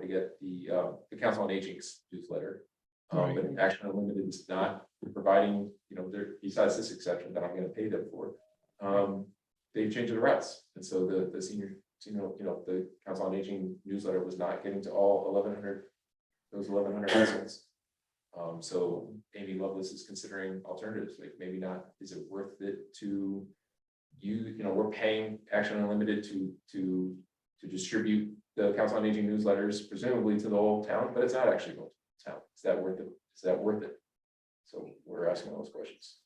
get the, uh, the Council on Aging's newsletter. Um, Right. but Action Unlimited is not providing, you know, there, besides this exception that I'm gonna pay them for. Um, they changed the routes, and so the, the senior, you know, you know, the Council on Aging newsletter was not getting to all eleven hundred, those eleven hundred residents. Um, so Amy Lovelace is considering alternatives, like maybe not, is it worth it to you, you know, we're paying Action Unlimited to, to, to distribute the Council on Aging newsletters presumably to the whole town, but it's not actually going to the town. Is that worth it? Is that worth it? So we're asking those questions.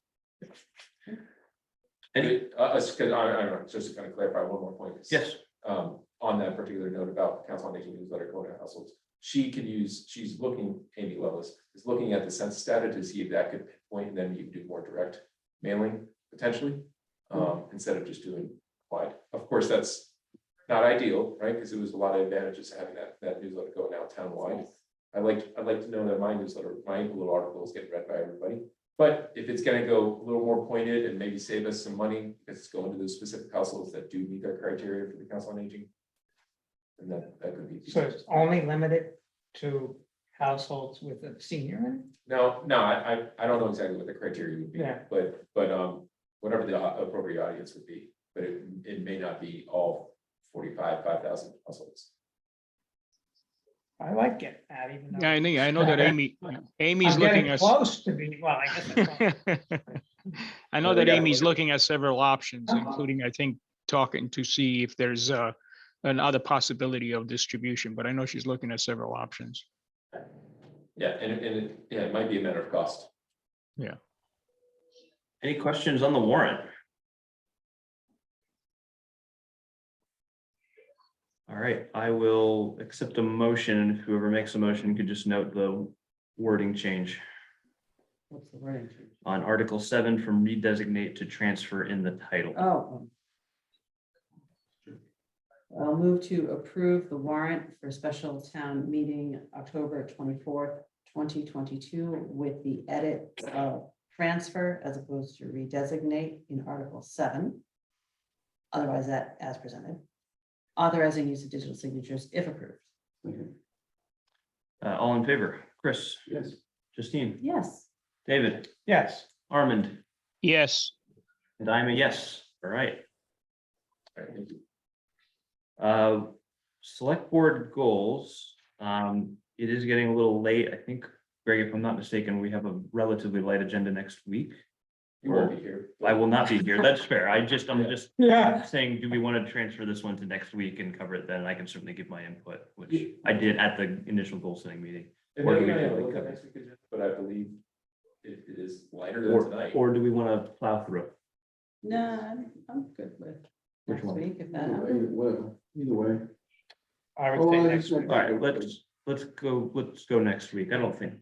Any- Uh, us- 'cause I, I don't know, just to kind of clarify one more point. is, Yes, Um, on that particular note about Council on Aging newsletter going to households, she can use, she's looking, Amy Lois is looking at the census data to see if that could point, and then you can do more direct mailing potentially. Um, instead of just doing wide. Of course, that's not ideal, right? Because it was a lot of advantages having that, that newsletter going out townwide. I like, I'd like to know that my newsletter, my little article is getting read by everybody. But if it's gonna go a little more pointed and maybe save us some money, because it's going to those specific households that do meet their criteria for the council on aging. And that, that could be. So it's only limited to households with a senior in it? No, no, I, I, I don't know exactly what the criteria would be, Yeah. but, but, um, whatever the au- appropriate audience would be, but it, it may not be all forty-five, five thousand households. I like it, Pat, even though. Yeah, I know, I know that Amy, Amy's I'm looking getting at. Close to being, well, I guess. I'm close. I Well, know we that gotta Amy's look at- looking at several options, Uh-huh. including, I think, talking to see if there's uh another possibility of distribution, but I know she's looking at several options. Yeah, and, it- and, it- yeah, it might be a matter of cost. Any questions on the warrant? All right, I will accept a motion. and Whoever makes a motion could just note the wording change What's the range? on Article seven from redesignate to transfer in the title. Oh. um, I'll move to approve the warrant for special town meeting October twenty-fourth, twenty twenty-two with the edit of transfer as opposed to redesignate in Article seven. Otherwise, that as presented. Authorizing use of digital signatures if approved. Uh, all in favor? Chris, Yes. Justine, Yes, David, Yes, Armand, Yes, and I'm a yes. All right. All right, thank you. Uh, select board goals, um, it is getting a little late. I think, Greg, if I'm not mistaken, we have a relatively light agenda next week. You won't be here. I will not be here. That's fair. I just, I'm just yeah, saying, do we want to transfer this one to next week and cover it then? I can certainly give my input, which I did at the initial goal setting meeting. And Or do maybe we I do have a like look at that? next week's agenda, But I believe it, it is lighter than Or, tonight. or do we want to plow through? no, I'm, I'm good with Which next one? week if that Either happens. way, well, either way. I would Oh, say I next just week. went All back right, and let's, let's go, let's go next week. I don't think,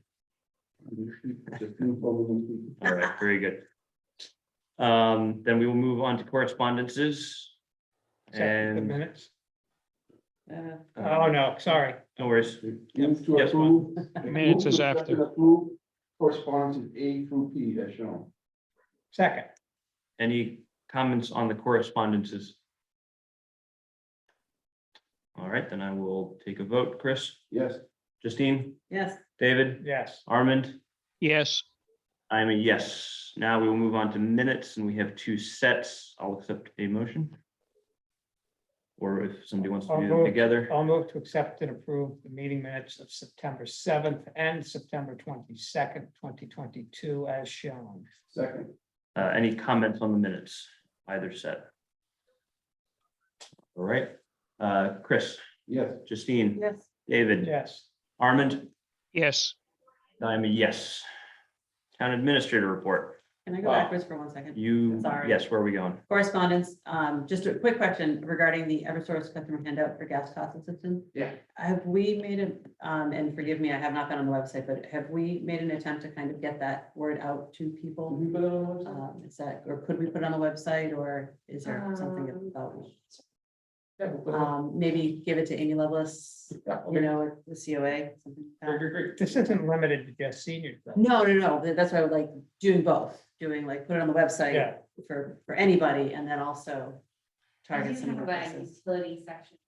forth. Just no problem. all right, very good. Um, then we will move on to correspondences. Except for the And. minutes. Uh, um, Oh, no, sorry. No worries. Move to Yes, approve. Minutes move is to after. accept and approve Correspondence A through P as shown. Second, Any comments on the correspondences? All right, then I will take a vote. Chris, Yes, Justine, Yes, David, yes, Armand, yes, I'm a yes. Now we will move on to minutes and we have two sets. I'll accept a motion. Or if somebody wants to do them together, I'll move to accept and approve the meeting minutes of September seventh and September twenty-second, twenty twenty-two as shown. second, uh, any comments on the minutes, either set? All right, uh, Chris, yes, Justine, yes, David, Yes, Armand, yes. I'm a yes. Town administrator report. can I go Wow. backwards for one second? You, Sorry. yes, where are we going? Correspondence, um, just a quick question regarding the Eversource customer handout for gas cost assistance. Yeah. Have we made a, um, and forgive me, I have not been on the website, but have we made an attempt to kind of get that word out to Will people? we put it on the website? Um, is that, or could we put it on the website or is there something about? Yeah, Um, we'll put it on. Um, maybe give it to Amy Lovelace, Yeah, okay. you know, the COA, something Great, like that. great, great. this isn't limited to just seniors. though. No, no, no, tha- that's why I would like doing both, doing like, put it on the website Yeah. for, for anybody and then also I target do some have of about a the utility section